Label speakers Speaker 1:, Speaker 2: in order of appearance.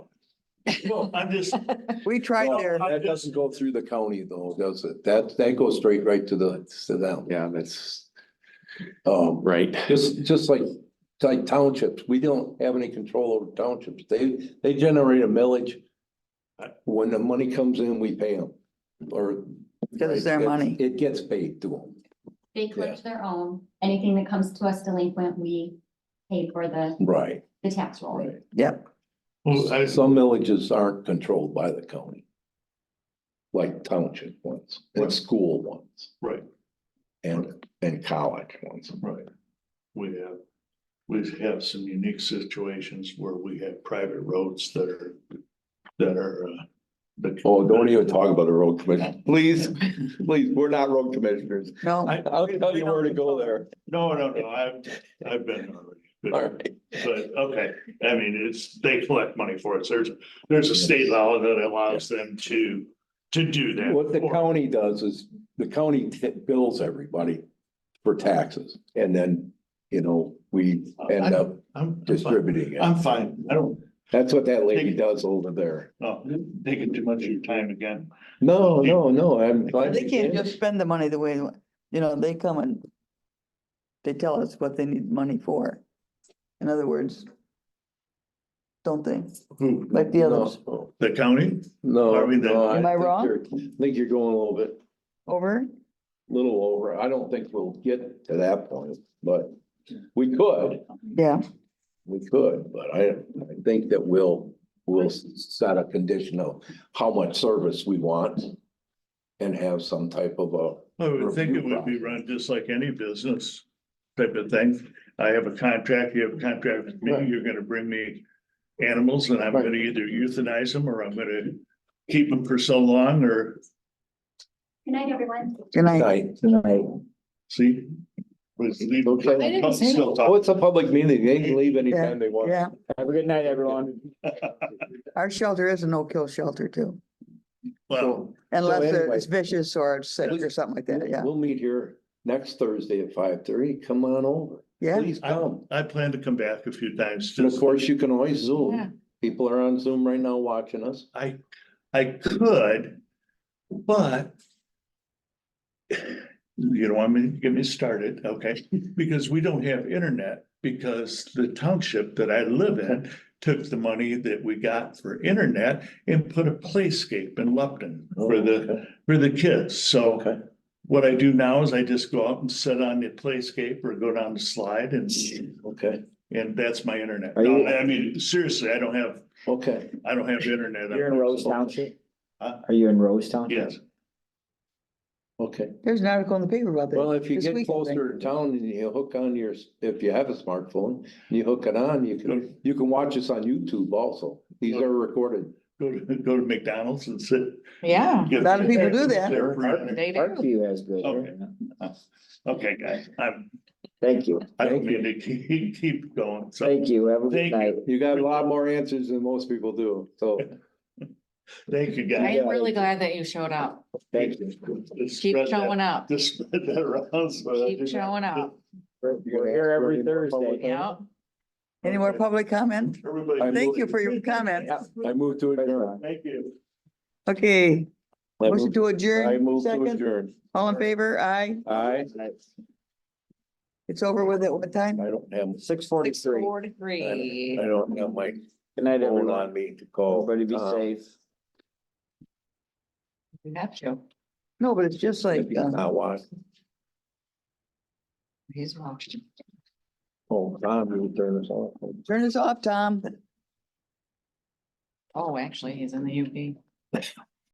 Speaker 1: Well, I'm just,
Speaker 2: We tried there.
Speaker 3: That doesn't go through the county though, does it? That, that goes straight right to the, to them.
Speaker 4: Yeah, that's
Speaker 3: Um,
Speaker 4: right.
Speaker 3: just, just like, like townships, we don't have any control over townships. They, they generate a millage. When the money comes in, we pay them or.
Speaker 2: Because it's their money.
Speaker 3: It gets paid to them.
Speaker 5: They collect their own, anything that comes to us delinquent, we pay for the,
Speaker 3: Right,
Speaker 5: the tax roll.
Speaker 3: right.
Speaker 2: Yep.
Speaker 1: well, I-
Speaker 3: Some villages aren't controlled by the county. Like township ones, and
Speaker 1: Right.
Speaker 3: school ones,
Speaker 1: right,
Speaker 3: and, and college ones.
Speaker 1: right. We have, we have some unique situations where we have private roads that are, that are, uh. that-
Speaker 3: Oh, don't even talk about the road commission, please, please, we're not road commissioners.
Speaker 2: No,
Speaker 1: I-
Speaker 3: I'll tell you where to go there.
Speaker 1: No, no, no, I've, I've been already. but-
Speaker 3: All right.
Speaker 1: But, okay, I mean, it's, they collect money for it. There's, there's a state law that allows them to, to do that.
Speaker 3: What the
Speaker 1: for-
Speaker 3: county does is, the county t- bills everybody for taxes, and then, you know, we end up
Speaker 1: I'm, I'm fine.
Speaker 3: distributing it.
Speaker 1: I'm fine. I don't,
Speaker 3: That's what that lady does over there.
Speaker 1: no, taking too much of your time again.
Speaker 3: No, no, no, I'm. glad
Speaker 2: they
Speaker 3: you
Speaker 2: can't
Speaker 3: did.
Speaker 2: just spend the money the way, they want. you know, they come and they tell us what they need money for. In other words, don't they?
Speaker 3: Hmm.
Speaker 1: Who,
Speaker 2: Like the others.
Speaker 3: No,
Speaker 1: the county?
Speaker 3: No.
Speaker 1: Are we there?
Speaker 3: no,
Speaker 2: Am I
Speaker 3: think
Speaker 2: wrong?
Speaker 3: you're- I Think you're going a little bit,
Speaker 2: Over?
Speaker 3: little over. I don't think we'll get to that point, but we could.
Speaker 2: Yeah.
Speaker 3: We could, but I, I think that we'll, we'll s- set a condition of how much service we want. And have some type of a,
Speaker 1: I would think it would be run just like any business type of thing. I have a contract, you have a contract with me,
Speaker 3: Right.
Speaker 1: you're gonna bring me animals and I'm
Speaker 3: Right.
Speaker 1: gonna either euthanize them or I'm gonna keep them for so long or
Speaker 5: Good night, everyone.
Speaker 2: Good night.
Speaker 3: night.
Speaker 1: see. Was leave.
Speaker 3: Okay.
Speaker 1: Still
Speaker 3: Oh,
Speaker 1: talk.
Speaker 3: it's a public meeting. They can leave anytime they want.
Speaker 2: Yeah,
Speaker 6: Have a good night, everyone.
Speaker 2: our shelter is a no-kill shelter too,
Speaker 1: Well,
Speaker 3: So
Speaker 2: unless
Speaker 3: anyway-
Speaker 2: it's vicious or it's sick or something like that, yeah,
Speaker 3: We'll meet here next Thursday at five thirty. Come on over.
Speaker 2: yeah.
Speaker 3: Please come.
Speaker 1: I plan to come back a few times.
Speaker 3: And of
Speaker 1: just-
Speaker 3: course, you can always
Speaker 2: Yeah.
Speaker 3: Zoom. People are on Zoom right now watching us.
Speaker 1: I, I could, but you don't want me to get me started, okay? Because we don't have internet because the township that I live in took the money that we got for internet and put a playscape in Lupton for the, for the kids.
Speaker 3: Okay.
Speaker 1: So what I do now is I just go out and sit on the playscape or go down the slide and,
Speaker 3: Okay,
Speaker 1: and that's my internet.
Speaker 6: Are you-
Speaker 1: No, I mean, seriously, I don't have,
Speaker 3: okay.
Speaker 1: I don't have internet.
Speaker 6: You're in Rose Township?
Speaker 1: Huh?
Speaker 6: Are you in Rose Township?
Speaker 1: Yes.
Speaker 3: Okay.
Speaker 2: There's an article in the paper about that.
Speaker 3: Well, if you
Speaker 2: this
Speaker 3: get
Speaker 2: week, I think.
Speaker 3: closer to town and you hook on your, if you have a smartphone, you hook it on, you can, you can watch us on YouTube also. These are recorded.
Speaker 1: Go to, go to McDonald's and sit.
Speaker 7: Yeah.
Speaker 1: get-
Speaker 2: lot of people do that.
Speaker 1: There for
Speaker 6: Our-
Speaker 1: dinner.
Speaker 6: our view has good.
Speaker 1: Okay. Okay, guys, I'm,
Speaker 6: Thank you,
Speaker 1: I don't mean to keep, keep going, so,
Speaker 6: thank you, have a good
Speaker 1: Thank you.
Speaker 6: night.
Speaker 3: You got a lot more answers than most people do, so.
Speaker 1: thank you,
Speaker 7: I
Speaker 1: guys.
Speaker 7: am really glad that you showed up.
Speaker 6: Thank you.
Speaker 1: Just
Speaker 7: Keep
Speaker 1: spread that-
Speaker 7: showing up.
Speaker 1: Just spread that around. so that I
Speaker 7: Keep
Speaker 1: do not-
Speaker 7: showing up.
Speaker 6: We're
Speaker 3: You're
Speaker 6: we're
Speaker 3: gonna
Speaker 6: here
Speaker 3: ask for
Speaker 6: every
Speaker 3: any more public
Speaker 6: Thursday.
Speaker 7: Yep.
Speaker 2: Any more public comment?
Speaker 1: Everybody.
Speaker 3: I
Speaker 2: Thank
Speaker 3: move-
Speaker 2: you for your comment.
Speaker 3: Yeah, I moved to adjourn.
Speaker 1: Thank you.
Speaker 2: Okay,
Speaker 3: I
Speaker 2: motion
Speaker 3: moved-
Speaker 2: to
Speaker 3: I
Speaker 2: adjourn,
Speaker 3: moved to
Speaker 2: second,
Speaker 3: adjourn.
Speaker 2: all in favor, aye,
Speaker 3: Aye.
Speaker 2: it's over with at what time?
Speaker 3: I don't have,
Speaker 6: Six
Speaker 7: Six,
Speaker 6: forty-three.
Speaker 7: four to
Speaker 3: I
Speaker 7: three.
Speaker 3: don't have my
Speaker 6: Good night,
Speaker 3: phone
Speaker 6: everyone.
Speaker 3: on me to call.
Speaker 6: Everybody be
Speaker 1: Oh,
Speaker 3: Tom.
Speaker 6: safe.
Speaker 1: um,
Speaker 7: You have to.
Speaker 2: No, but it's just like,
Speaker 3: If he's
Speaker 2: uh,
Speaker 3: not watching.
Speaker 7: He's watching.
Speaker 3: Oh, Tom, you turn us off.
Speaker 2: turn this off, Tom.
Speaker 7: Oh, actually, he's in the UP.